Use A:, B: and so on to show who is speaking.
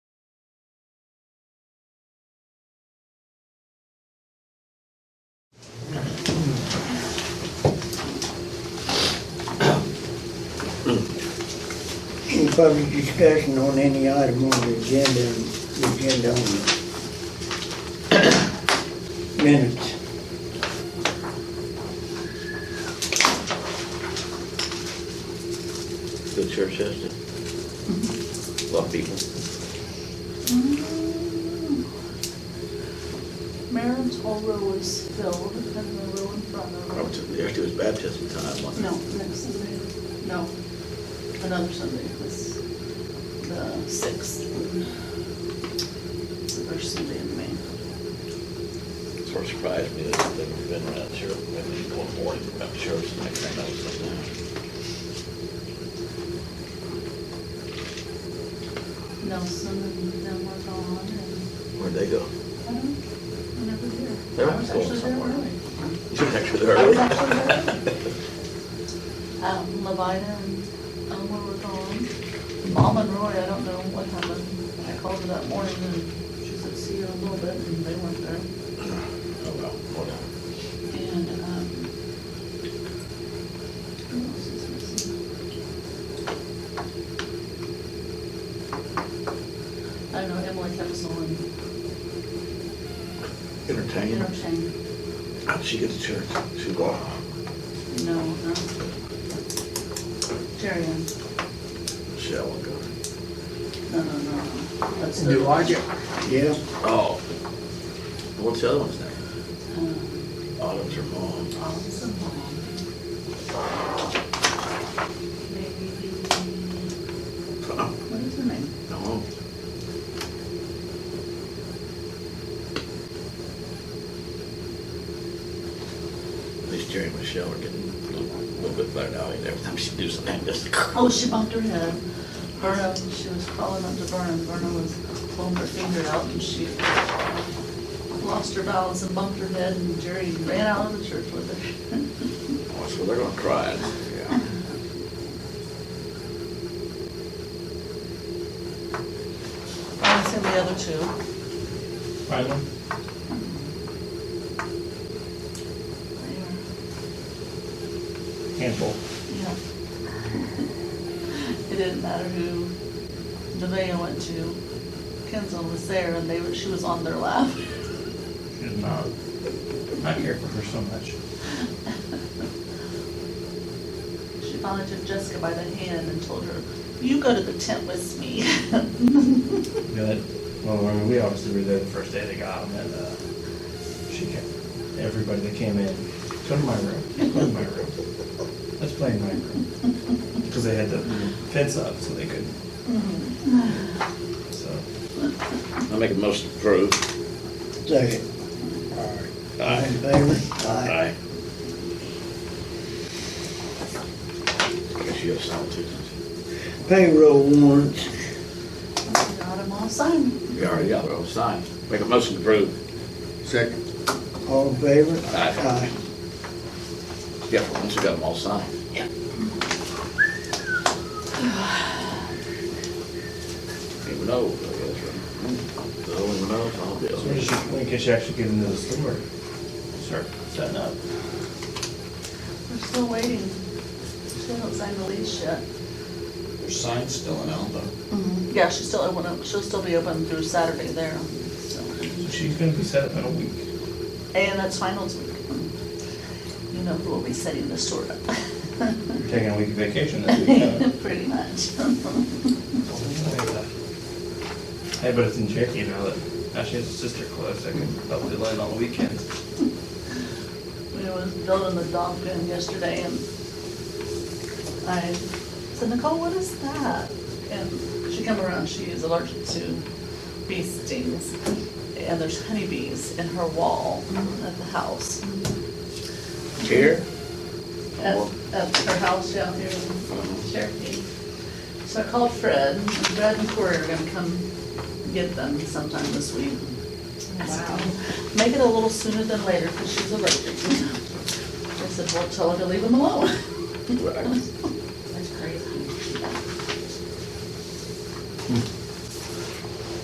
A: public discussion on any item on the agenda, and agenda only. Minutes.
B: Good church has A lot of people.
C: Maryland's Mm. whole row is filled, and the row in front
B: Up
C: of
B: to- Actually, it was baptism time,
C: it.
B: wasn't
C: No,
B: it?
C: next Sunday, no, another Sunday, it was the sixth. It's the first Sunday in May.
B: Sort of surprised me that they've been around here, I mean, one morning, around church, and I think that was something.
C: Nelson and them were gone, and
B: Where'd they go?
C: I don't, I never there.
B: They were
C: I was
B: going
C: actually there
B: somewhere.
C: early.
B: You were actually
C: I
B: there
C: was
B: early.
C: Oh, actually there. Um, Levina and Elmer were gone. Mom and Roy, I don't know what happened. I called her that morning and she said, see you in a little bit, and they weren't there.
B: Oh, well, whatever.
C: And, um, who else is missing? I don't know, Emily kept us on
B: Entertainment.
C: interchange.
B: How'd she get to church? She walked.
C: No, no. Jerry, Ann.
B: Shell and go.
C: no, no, no. That's
A: Do you
C: the-
A: like it? Yeah.
B: Oh. What's the other one's name?
C: Um,
B: Autumn's her mom.
C: Awesome. Maybe,
B: Oh,
C: what is her name?
B: No. At least Jerry and Michelle are getting a little- little bit better now. and Every time she do something, just.
C: Oh, she bumped her head. Verna, she was calling up to Verna, and Verna was pulling her finger out, and she lost her balance and bumped her head, and Jerry ran out of the church with her.
B: Oh, So they're gonna cry. Yeah.
C: I sent the other two.
D: Island, handful.
C: Yeah. It didn't matter who DeVay went to, Kenzel was there, and they, were- she was on their lap.
D: She's not, uh, I care for her so much.
C: She finally took Jessica by the hand and told her, "You go to the tent with me."
D: Good. Well, I mean, we obviously were there the first day they got them, and, uh, she kept, everybody that came in, go to my room, go to my room. Let's play in my room. Because they had the fence up, so they couldn't, so.
B: I make a motion to approve.
A: Second. All in favor?
B: Aye. I guess you have some too. don't
A: Payroll warrants.
C: Got them all signed.
B: you? We already got it all signed. Make a motion to approve.
E: Second.
A: All in favor?
B: Aye. Yeah, once we got them all signed.
C: Yeah.
B: Even know, I guess, right? The only one knows, I'll be
D: So we just, we can actually get into the store, start setting up.
C: We're still waiting. She hasn't signed the lease yet.
F: There's signs still in Alba.
C: Yeah, she's still open, she'll still be open through Saturday there, so.
D: So she's gonna be set up in a week.
C: And that's finals week. You know who will be setting the store up.
D: You're taking a week of vacation this week, huh?
C: Pretty much.
D: Hey, but it's in Cherokee now that Ashley has a sister close, I can probably land on the weekends.
C: We was building the dog pen yesterday and I said, Nicole, what is that? And she come around, she is allergic to bee stings. And there's honeybees in her wall at the house.
B: Here?
C: At, at her house down here in Cherokee. So I called Fred, and Fred and Corey are gonna come get them sometime this week. I said, "Oh, Make it a little sooner than later, because she's allergic. I said, well, tell her to leave them alone.
B: Right.